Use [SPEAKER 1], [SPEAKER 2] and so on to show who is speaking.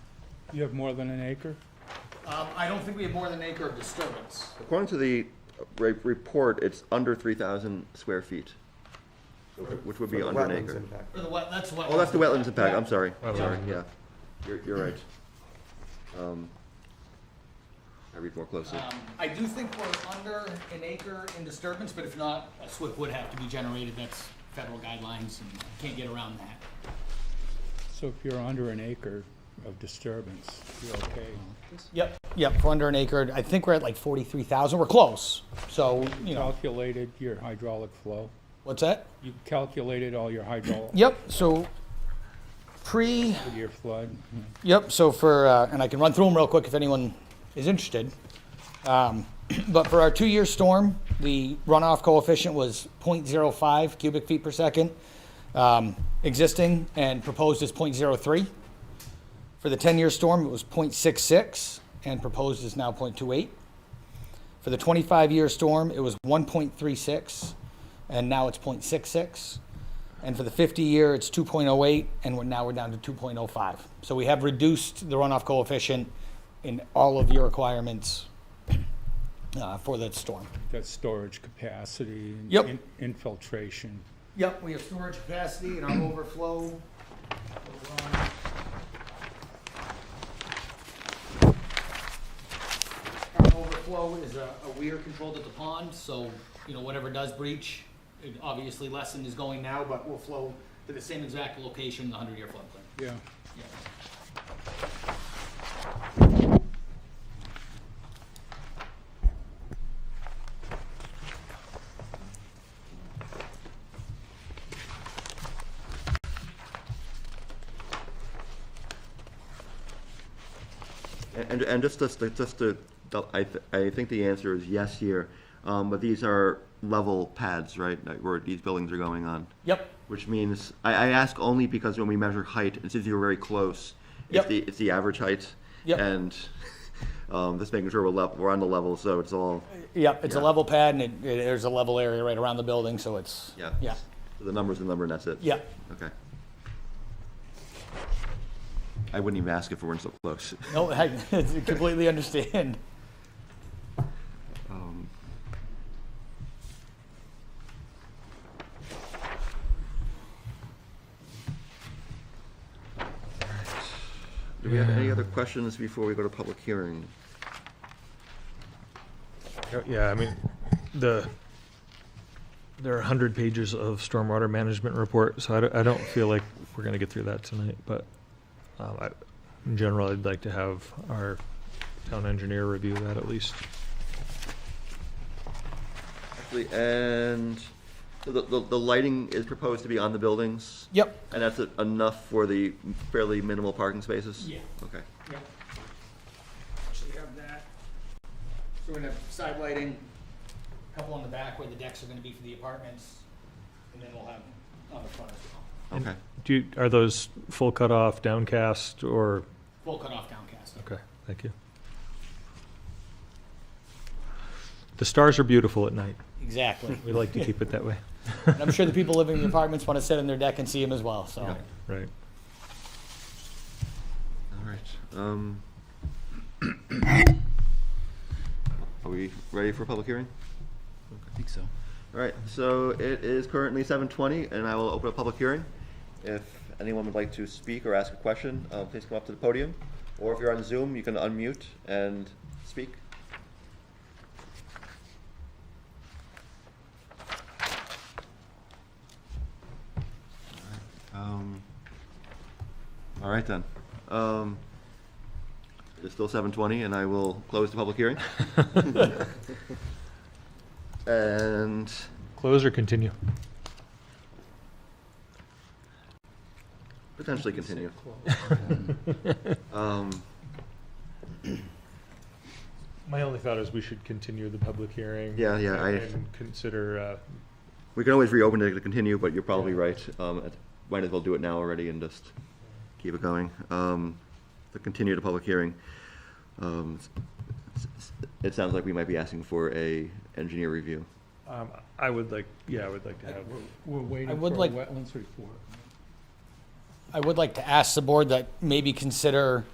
[SPEAKER 1] You have more than an acre?
[SPEAKER 2] Um, I don't think we have more than an acre of disturbance.
[SPEAKER 3] According to the re- report, it's under three thousand square feet, which would be
[SPEAKER 4] For the
[SPEAKER 3] under an
[SPEAKER 4] wetlands
[SPEAKER 3] acre.
[SPEAKER 4] impact.
[SPEAKER 2] Or the wet, that's what.
[SPEAKER 3] Oh, that's the wetlands impact,
[SPEAKER 2] Yeah.
[SPEAKER 3] I'm sorry, I'm
[SPEAKER 2] Wetlands.
[SPEAKER 3] sorry, yeah. You're, you're right. Um, I read more closely.
[SPEAKER 2] Um, I do think we're under an acre in disturbance, but if not, a SWIP would have to be generated. That's federal guidelines and can't get around that.
[SPEAKER 1] So if you're under an acre of disturbance, you're okay.
[SPEAKER 2] Yep, yep, we're under an acre. I think we're at like forty-three thousand. We're close. So, you know,
[SPEAKER 1] Calculated your hydraulic flow?
[SPEAKER 2] what's that?
[SPEAKER 1] You calculated all your hydraulic,
[SPEAKER 2] Yep, so pre,
[SPEAKER 1] with your flood?
[SPEAKER 2] yep, so for, uh, and I can run through them real quick if anyone is interested. Um, But for our two-year storm, the runoff coefficient was 0.05 cubic feet per second. um, Existing and proposed is 0.03. For the ten-year storm, it was 0.66 and proposed is now 0.28. For the twenty-five-year storm, it was one point three six and now it's 0.66. And for the 50 year, it's 2.08, and we're, now we're down to 2.05. So we have reduced the runoff coefficient in all of your requirements uh, for that storm.
[SPEAKER 1] That's storage capacity? and
[SPEAKER 2] Yep.
[SPEAKER 1] in- Infiltration?
[SPEAKER 2] Yep, we have storage capacity and our overflow. Our overflow is a, a weir controlled at the pond, so, you know, whatever does breach, it obviously lesson is going now, but will flow to the same exact location, in the hundred-year floodplain.
[SPEAKER 1] Yeah.
[SPEAKER 3] And, and just, just, just to, I, th- I think the answer is yes here, um, but these are level pads, right, that- where these buildings are going on?
[SPEAKER 2] Yep,
[SPEAKER 3] Which means, I, I ask only because when we measure height, and since you're very close,
[SPEAKER 2] Yep.
[SPEAKER 3] it's the, it's the average height.
[SPEAKER 2] Yep.
[SPEAKER 3] And, um, just making sure we're level, we're on the level, so it's all,
[SPEAKER 2] yep, it's a
[SPEAKER 3] Yeah.
[SPEAKER 2] level pad, and it, it- there's a level area right around the building, so it's,
[SPEAKER 3] yeah.
[SPEAKER 2] yeah,
[SPEAKER 3] So The number's the number and that's it?
[SPEAKER 2] yeah.
[SPEAKER 3] Okay. I wouldn't even ask if we weren't so close.
[SPEAKER 2] No, I completely understand.
[SPEAKER 3] Um, Do we have any other questions before we go to public hearing?
[SPEAKER 5] Yeah, Oh, Yeah, I mean, the, there are 100 pages of stormwater management report, so I don't, I don't feel like we're going to get through that tonight, but um, I, in general, I'd like to have our town engineer review that at least.
[SPEAKER 3] Actually, and so the, the, the lighting is proposed to be on the buildings?
[SPEAKER 2] Yep.
[SPEAKER 3] And that's enough for the fairly minimal parking spaces?
[SPEAKER 2] Yeah.
[SPEAKER 3] Okay.
[SPEAKER 2] Yep. Actually have that. So we're gonna have side lighting, a couple on the back where the decks are gonna be for the apartments, and then we'll have on the front as well.
[SPEAKER 3] Okay.
[SPEAKER 5] Do you, are those full cutoff, downcast, or,
[SPEAKER 2] Full cutoff downcast.
[SPEAKER 5] okay, thank you. The stars are beautiful at night.
[SPEAKER 2] Exactly.
[SPEAKER 5] We like to keep it that way.
[SPEAKER 2] And I'm sure the people living in the apartments wanna sit on their deck and see them as well, so.
[SPEAKER 5] Right.
[SPEAKER 3] All right. Um, are we ready for public hearing?
[SPEAKER 6] I think so.
[SPEAKER 3] All right. So it is currently 7:20, and I will open a public hearing. If anyone would like to speak or ask a question, uh, please come up to the podium, or if you're on Zoom, you can unmute and speak. All right, Um, all right then. Um, it's still 7:20, and I will close the public hearing. and.
[SPEAKER 5] Close or continue?
[SPEAKER 3] Potentially continue. Um,
[SPEAKER 5] My only thought is we should continue the public hearing.
[SPEAKER 3] Yeah, yeah, I-
[SPEAKER 5] And consider, uh,
[SPEAKER 3] We can always reopen it to continue, but you're probably right. Um, it- Might as well do it now already and just keep it going. Um, To continue the public hearing. Um, s- s- It sounds like we might be asking for a engineer review.
[SPEAKER 5] um, I would like, yeah, I would like to have,
[SPEAKER 1] We're waiting for a
[SPEAKER 2] would like-
[SPEAKER 1] wetlands report.
[SPEAKER 2] I would like to ask the board that maybe consider